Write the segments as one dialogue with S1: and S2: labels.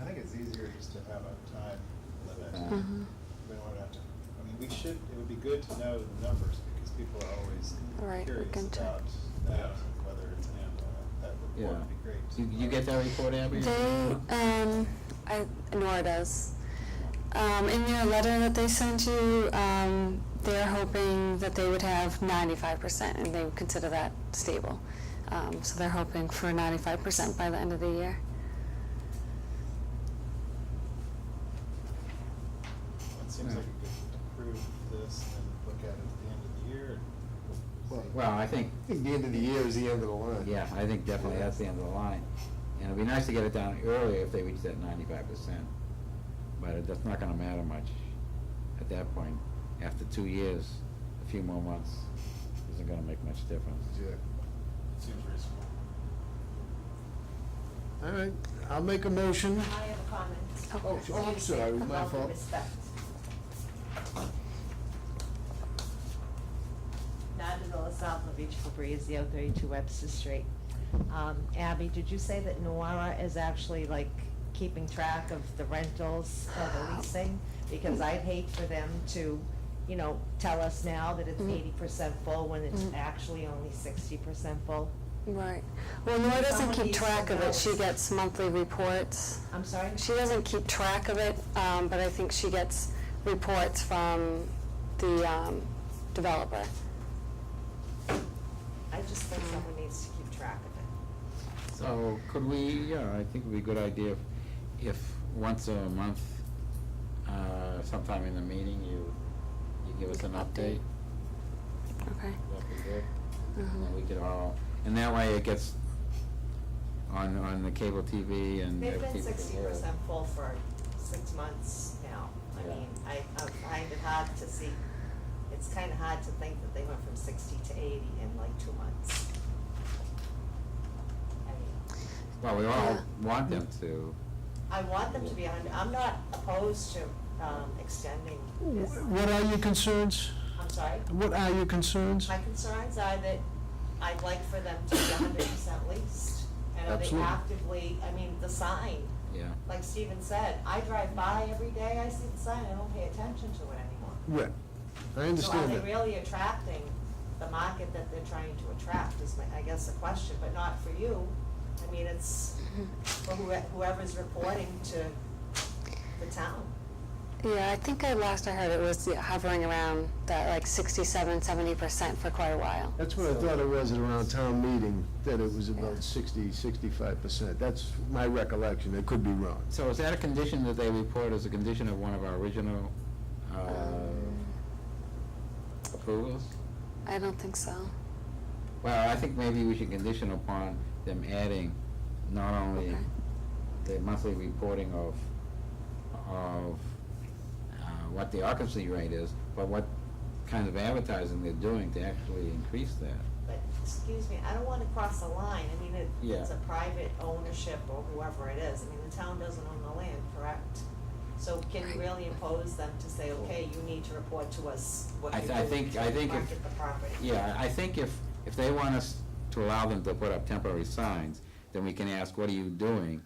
S1: I think it's easier just to have a time limit.
S2: Uh-huh.
S3: Mhm.
S1: We don't wanna have to, I mean, we should, it would be good to know the numbers because people are always
S3: Right, we
S1: curious
S3: can check.
S1: about that, whether it's an amp or not. That report
S2: Yeah.
S1: would be great.
S2: You, you get that report, Amber?
S3: They, um, I, Nora does. Um, in your letter that they sent you, um, they're hoping that they would have ninety-five percent, and they would consider that stable. Um, so they're hoping for ninety-five percent by the end of the year.
S1: It seems like we could approve this and then look at it at the end of the year. and see.
S2: Well, I think,
S4: I think the end of the year is the end of the line.
S2: yeah, I think definitely that's the end of the line. And it'd be nice to get it down earlier if they reach that ninety-five percent, but it- that's not gonna matter much at that point. After two years, a few more months, isn't gonna make much difference.
S1: Seems reasonable.
S4: All right, I'll make a motion.
S5: I have a comment.
S4: Oh, oh, I'm sorry, my
S5: About the
S4: fault.
S5: respect. Nandavilla Savlovich Fabrizio, thirty-two Webster Street. Um, Abby, did you say that Nuara is actually like keeping track of the rentals or the leasing? Because I'd hate for them to, you know, tell us now that it's
S4: Mm-hmm.
S3: Mm.
S5: eighty percent full when it's
S3: Mm.
S5: actually only sixty percent full.
S3: Right. Well, Nora doesn't
S5: Someone
S3: keep
S5: needs to
S3: track of
S5: know.
S3: it. She gets monthly reports.
S5: I'm sorry?
S3: She doesn't keep track of it, um, but I think she gets reports from the, um, developer.
S5: I just think someone needs to keep track of it.
S2: So could we, yeah, I think it would be a good idea if, if once a month, uh, sometime in the meeting, you, you give us an update.
S3: Okay.
S2: That'd be good. And
S5: Mm-hmm.
S3: Mhm.
S2: then we could all, and that way it gets on, on the cable TV and.
S5: They've
S2: everything.
S5: been sixty percent full for six months now. I
S2: Yeah.
S5: mean, I, I find it hard to see, it's kind of hard to think that they went from sixty to eighty in like two months. I mean,
S2: Well, we all
S3: Yeah.
S2: want them to.
S5: I want them to be a hundred, I'm not opposed to, um, extending this.
S4: What are your concerns?
S5: I'm sorry?
S4: What are your concerns?
S5: My concerns are that I'd like for them to be a hundred percent leased. And are they
S2: Absolutely.
S5: actively, I mean, the sign,
S2: Yeah,
S5: like Steven said, I drive by every day, I see the sign, I don't pay attention to it anymore.
S4: Yeah, I understand
S5: So are they
S4: that.
S5: really attracting the market that they're trying to attract is my, I guess, the question, but not for you. I mean, it's for whoe- whoever's reporting to the town.
S3: Yeah, I think I last I heard it was hovering around that like 67, 70% for quite a while.
S4: That's what I thought it was at around town meeting, that it was
S3: Yeah.
S4: about 60, 65%. That's my recollection, I could be wrong.
S2: so is that a condition that they report as a condition of one of our original, uh,
S3: Um.
S2: approvals?
S3: I don't think so.
S2: Well, I think maybe we should condition upon them adding not only
S3: Okay.
S2: the monthly reporting of, of, uh, what the occupancy rate is, but what kind of advertising they're doing to actually increase that.
S5: But, excuse me, I don't wanna cross a line, I mean, it,
S2: Yeah.
S5: it's a private ownership or whoever it is, I mean, the town doesn't own the land, correct? So can you
S3: Right.
S5: really impose them to say, okay, you need to report to us what
S2: I
S5: you're
S2: th- I
S5: doing
S2: think-
S5: to
S2: I think if-
S5: market the property?
S2: Yeah, I think if, if they want us to allow them to put up temporary signs, then we can ask, what are you doing?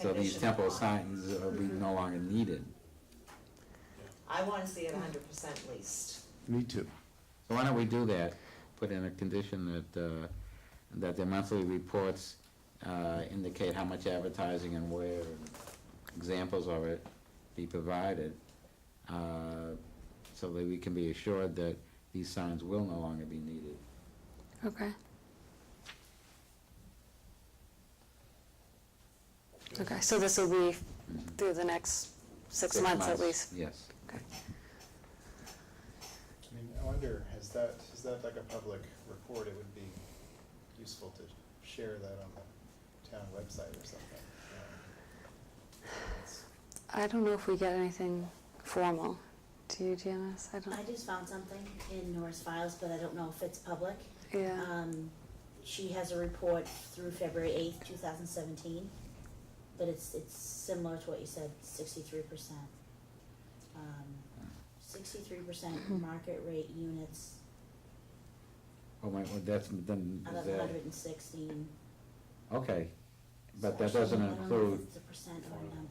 S2: So these
S5: Condition
S2: temporary
S5: upon.
S2: signs are be no longer needed.
S5: I wanna see it hundred percent leased.
S4: Me too.
S2: So why don't we do that? Put in a condition that, uh, that the monthly reports, uh, indicate how much advertising and where, and examples of it be provided, uh, so that we can be assured that these signs will no longer be needed.
S3: Okay. Okay, so this will be through the next six months at least?
S2: Yes.
S3: Okay.
S1: I mean, I wonder, is that, is that like a public report? It would be useful to share that on the town website or something. you know. It's-
S3: I don't know if we get anything formal. Do you, Janice? I
S6: I
S3: don't,
S6: just found something in Nora's files, but I don't know if it's public.
S3: yeah,
S6: Um, she has a report through February eighth, two thousand seventeen, but it's, it's similar to what you said, sixty-three percent. Um, sixty-three percent market rate units
S2: Oh, my, well, that's, then,
S6: out
S2: is
S6: of
S2: that,
S6: hundred and sixteen.
S2: okay, but that doesn't include,
S6: The percent or